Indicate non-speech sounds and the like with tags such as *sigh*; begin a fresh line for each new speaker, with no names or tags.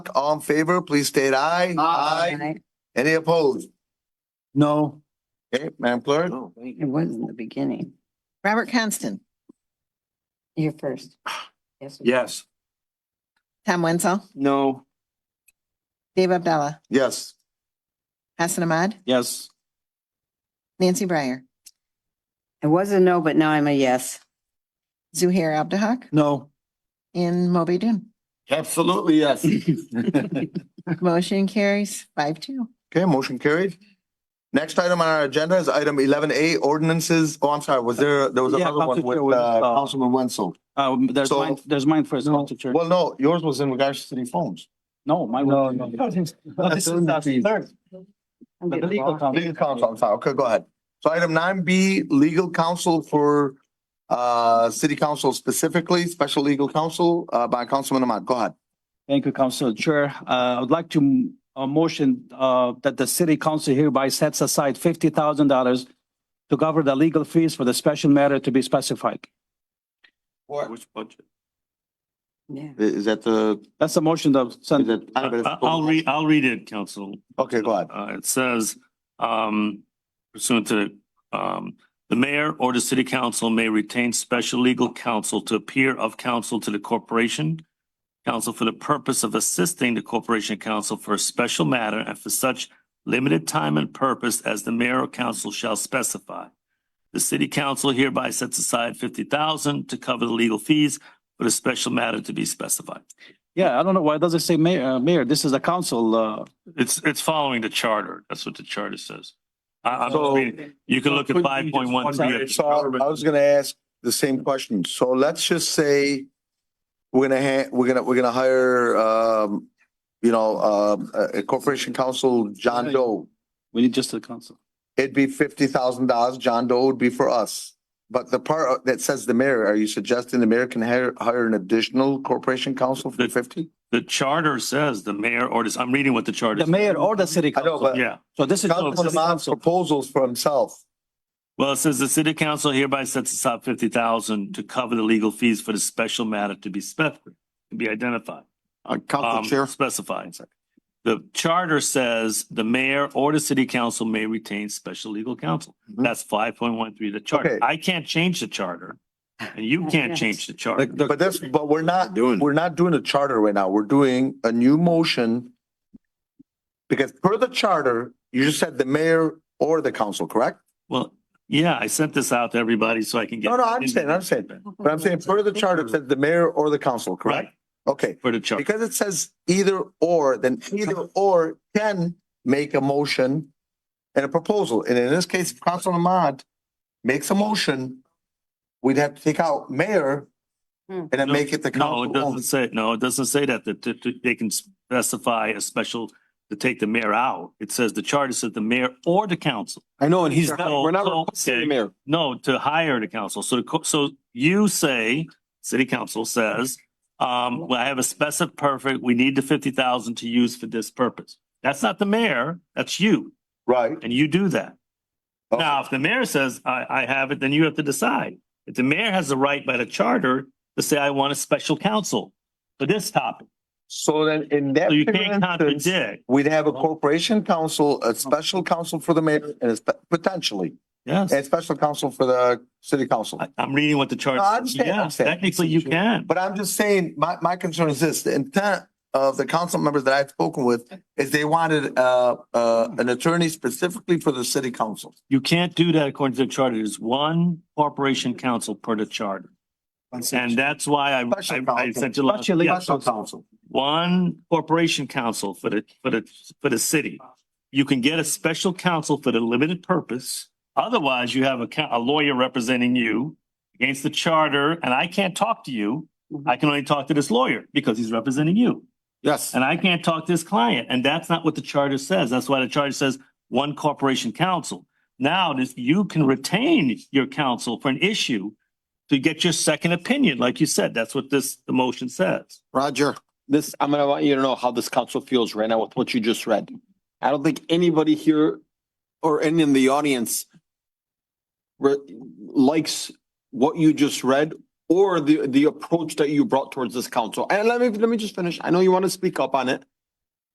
All in favor, please state aye. Any opposed?
No.
Okay, Madam Clerk?
It was in the beginning.
Robert Constant,
You're
*sighs*
first. Yes.
Yes.
Tom Wenzel,
No.
Dave Abdallah,
Yes.
Hassan Ahmad,
Yes.
Nancy Breyer,
It was a no, but now I'm a yes.
Zuhair Abdahak,
No.
and Moby Dun.
*clears throat*
Absolutely, yes.
Motion carries five two.
Okay, motion carried. Next item on our agenda is item eleven A, ordinances. Oh, I'm sorry, was there, there was
Yeah,
another one
Council Chair
with,
was,
uh,
uh,
Councilman Wenzel.
Uh, there's
So-
mine, there's mine first,
No.
Council Chair.
Well, no, yours was in regards to the phones.
No, *laughs* my.
No, no.
This is our third,
I'm
the
getting
legal
lost.
counsel.
Legal counsel, I'm sorry. Okay, go ahead. So item nine B, legal counsel for, uh, city council specifically, special legal counsel, uh, by Councilman Ahmad. Go ahead.
Thank you, Council Chair. Uh, I would like to, uh, motion, uh, that the city council hereby sets aside fifty thousand dollars to cover the legal fees for the special matter to be specified.
Which budget?
Yeah.
I- Is that the,
That's the motion that,
is
sent-
that?
I- I'll read, I'll read it, Council.
Okay, go ahead.
Uh, it says, um, pursuant to, um, the mayor or the city council may retain special legal counsel to appear of counsel to the corporation. Counsel for the purpose of assisting the corporation counsel for a special matter and for such limited time and purpose as the mayor or council shall specify. The city council hereby sets aside fifty thousand to cover the legal fees for the special matter to be specified.
yeah, I don't know why it doesn't say mayor, uh, mayor, this is a council, uh,
It's, it's following the charter. That's what the charter says. I, I'm
So-
just reading. You can look at
Couldn't
five
you just
point one
one-
three.
So I was gonna ask the same question. So let's just say we're gonna ha- we're gonna, we're gonna hire, um, you know, um, a a corporation counsel, John Doe.
we need just the council.
It'd be fifty thousand dollars. John Doe would be for us. But the part that says the mayor, are you suggesting the mayor can hire, hire an additional corporation counsel for fifty?
The charter says the mayor or this, I'm reading what the charter.
The mayor or the city
I know,
council.
but
Yeah.
So this is.
Councilman Ahmad's proposals for himself.
Well, it says the city council hereby sets aside fifty thousand to cover the legal fees for the special matter to be spec, to be identified.
Uh,
um, specified. The charter says the mayor or the city council may retain special legal counsel.
Mhm.
That's five point one three, the charter.
Okay.
I can't change the charter. And you can't
Yes.
change the charter.
But that's, but we're not, we're not doing a charter right now. We're doing a new motion. Because per the charter, you just said the mayor or the council, correct?
Well, yeah, I sent this out to everybody so I can get.
No, no, I understand, I understand. But I'm saying per the charter, it says the mayor or the council,
Right,
correct? Okay,
for the chart.
because it says either or, then either or can make a motion and a proposal. And in this case, if Council Ahmad makes a motion, we'd have to take out mayor
Hmm.
and then
No,
make it the
No,
council
it
only.
doesn't say, no, it doesn't say that, that, that- that they can specify a special, to take the mayor out. It says the charter says the mayor or the council.
I know, and he's
So-
not, we're not
so,
requesting the
okay.
mayor.
No, to hire the council. So, the co- so you say, city council says, um, well, I have a specific perfect, we need the fifty thousand to use for this purpose. That's not the mayor, that's you,
Right.
and you do that.
Okay.
Now, if the mayor says, I, I have it, then you have to decide. If the mayor has the right by the charter to say, I want a special counsel for this topic,
So then in that
so you
particular
can't
instance,
contradict.
we'd have a corporation council, a special counsel for the mayor and a spe- potentially,
Yes,
and special counsel for the city council.
I, I'm reading what the
No, I
charter,
understand, I
yeah,
understand.
technically you can.
But I'm just saying, my, my concern is this, the intent of the council members that I've spoken with is they wanted, uh, uh, an attorney specifically for the city council.
You can't do that according to the charter. There's one corporation council per the charter. And that's why I, I,
Special
I
counsel.
sent you last,
Special-
yes,
Special counsel.
one corporation council for the, for the, for the city. You can get a special counsel for the limited purpose. Otherwise, you have a, coun- a lawyer representing you against the charter, and I can't talk to you. I can only talk to this lawyer because he's representing you.
Yes.
And I can't talk to this client, and that's not what the charter says. That's why the charter says one corporation counsel. Now, this, you can retain your counsel for an issue to get your second opinion, like you said. That's what this, the motion says.
Roger. This, I'm gonna want you to know how this council feels right now with what you just read. I don't think anybody here or any in the audience re- likes what you just read or the, the approach that you brought towards this council. And let me, let me just finish. I know you want to speak up on it.